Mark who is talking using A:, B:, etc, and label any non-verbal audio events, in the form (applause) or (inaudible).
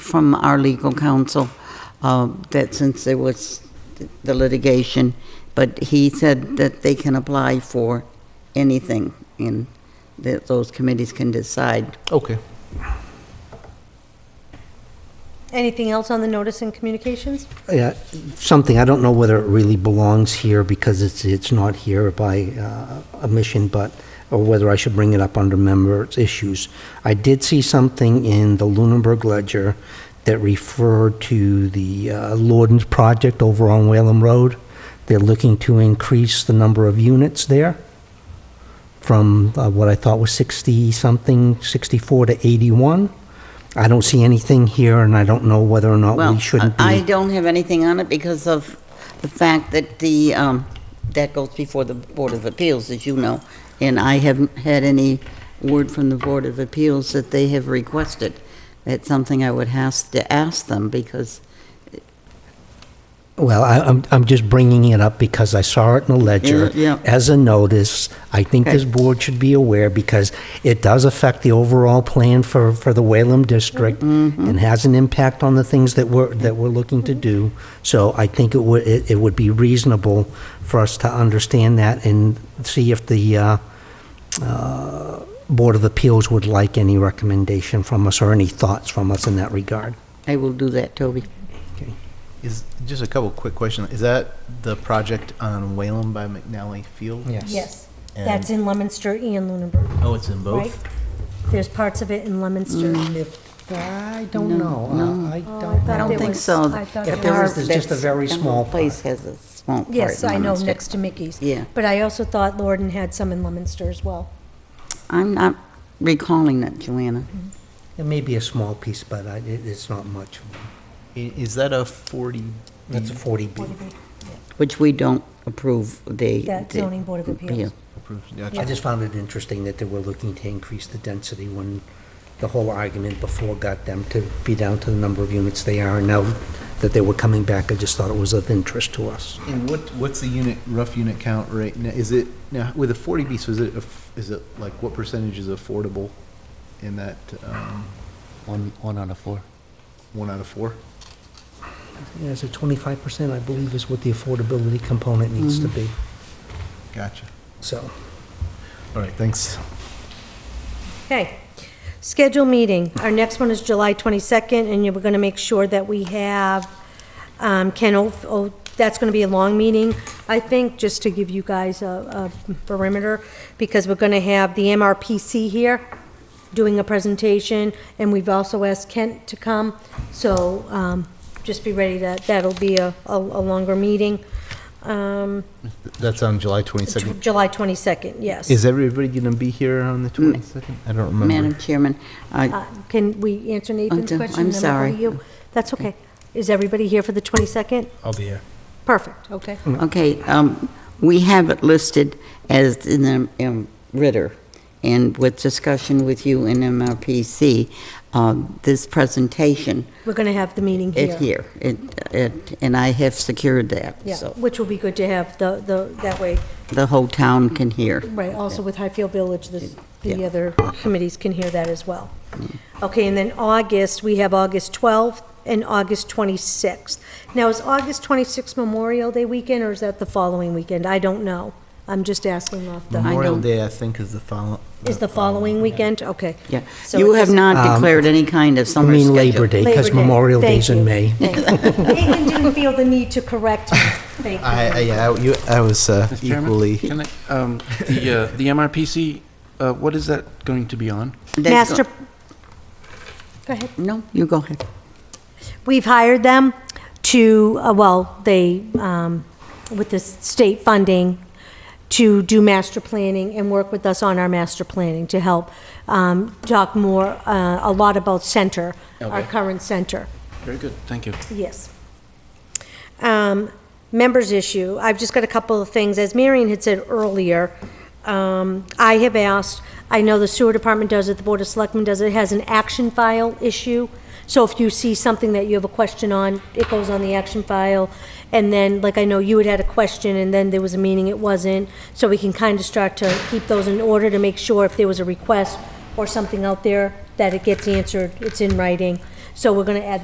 A: from our legal counsel uh, that since there was the litigation, but he said that they can apply for anything, and that those committees can decide.
B: Okay.
C: Anything else on the notice and communications?
D: Yeah, something, I don't know whether it really belongs here because it's, it's not here by uh, omission, but, or whether I should bring it up under members' issues. I did see something in the Lunenburg Ledger that referred to the uh, Lorden's project over on Whalen Road. They're looking to increase the number of units there from uh, what I thought was 60-something, 64 to 81. I don't see anything here, and I don't know whether or not
A: Well,
D: we shouldn't be...
A: I I don't have anything on it because of the fact that the, um, that goes before the Board of Appeals, as you know, and I haven't had any word from the Board of Appeals that they have requested. That's something I would have to ask them because,
D: Well, I, I'm, I'm just bringing it up because I saw it in the ledger.
A: Mm, Yeah, yeah.
D: As a notice, I think this
A: Okay.
D: board should be aware because it does affect the overall plan for, for the Wayland District
A: Mm-hmm.
D: and has an impact on the things that we're, that we're looking to do. So I think it would, it, it would be reasonable for us to understand that and see if the, uh, uh, Board of Appeals would like any recommendation from us or any thoughts from us in that regard.
A: I will do that, Toby.
B: Is just a couple quick questions. Is that the project on Whalen by McNally Field?
C: Yes.
B: And-
C: That's in Lemonster and Lunenburg,
B: Oh, it's in
C: right?
B: both. Mm.
C: There's parts of it in Lemonster.
D: I don't know. Uh, I
C: Oh,
A: I don't
C: There
A: think
C: was-
A: so.
C: I thought
A: If
C: there
A: there
C: was-
A: was-
D: There's just a
A: that's-
D: very
A: the whole
D: small
A: Place has a small part.
C: Yes,
A: in
C: I know,
A: Lemonster.
C: next to Mickey's.
A: Yeah.
C: But I also thought Lorden had some in Lemonster as well.
A: I'm not recalling that, Joanna.
D: It may be a small piece, but I, it, it's not much.
B: I- Is that a forty?
D: That's a 40B.
A: Which we don't approve the.
C: That
A: the-
C: zoning board of appeals.
A: yeah.
B: Approved.
D: I
B: Gotcha.
D: just found it interesting that they were looking to increase the density when the whole argument before got them to be down to the number of units they are. and Now that they were coming back, I just thought it was of interest to us.
B: And what what's the unit rough unit count right now? Is it now with a forty B? So is it a f- is it like what percentage is affordable in that um,
E: One, one out of four.
B: one out of four?
D: Yeah, so 25%, I believe, is what the affordability component needs to be,
B: Gotcha.
D: so.
B: All right. Thanks.
C: Okay. Schedule meeting. Our next one is July 22nd, and you're going to make sure that we have um, Ken, O- O- that's going to be a long meeting, I think, just to give you guys a a perimeter, because we're going to have the MRPC here doing a presentation, and we've also asked Kent to come, so um, just be ready that, that'll be a a a longer meeting. Um,
B: That's on July twenty second.
C: July 22nd, yes.
B: Is everybody going to be here on the twenty second? I don't remember.
A: Madam Chairman, I-
C: Uh, Can we answer Nathan's
A: Oh, I'm
C: question? and then we'll go
A: sorry.
C: to you? That's okay. Is everybody here for the 22nd?
B: I'll be here.
C: Perfect, okay.
A: okay, um, we have it listed as in the um, Ritter, and with discussion with you and MRPC, um, this presentation
C: We're going to have the meeting here.
A: is here, It- it- and I have secured that,
C: Yeah,
A: so
C: which will be good to have the, the, that way,
A: the whole town can hear.
C: right, also with Highfield Village, this, the
A: Yeah. Mm.
C: other committees can hear that as well. Okay, and then August, we have August 12th and August 26th. Now, is August 26th Memorial Day weekend, or is that the following weekend? I don't know. I'm just asking off
A: Mm.
C: the,
B: Memorial
A: don't-
B: Day, I think, is the follow.
C: is the following weekend? Okay.
A: Yeah.
C: So
A: You
C: it
A: have
C: doesn't-
A: not declared any kind of
D: I
A: summer
D: mean
A: schedule.
D: Labor Day, because
C: Labor Day.
D: Memorial
C: Thank
D: Day's in
C: you.
D: May.
C: (laughs) Caitlin didn't feel the need to correct me. Thank you.
B: I, I, yeah, I- you, I was uh,
E: Mr. Chairman,
B: equally.
E: Can I, um, the, uh, the MRPC, uh, what is that going to be on?
A: That's go-
C: Master, go ahead.
A: No, you go ahead.
C: We've hired them to, uh, well, they, um, with the state funding, to do master planning and work with us on our master planning to help um, talk more, uh, a lot about center, our
E: Okay.
C: current center.
E: Very good, thank you.
C: Yes. Um, Members issue, I've just got a couple of things. As Marion had said earlier, um, I have asked, I know the sewer department does it, the Board of Selectmen does it, it has an action file issue. So if you see something that you have a question on, it goes on the action file. And then, like I know you had had a question, and then there was a meeting it wasn't, so we can kind of start to keep those in order to make sure if there was a request or something out there, that it gets answered, it's in writing. So we're going to add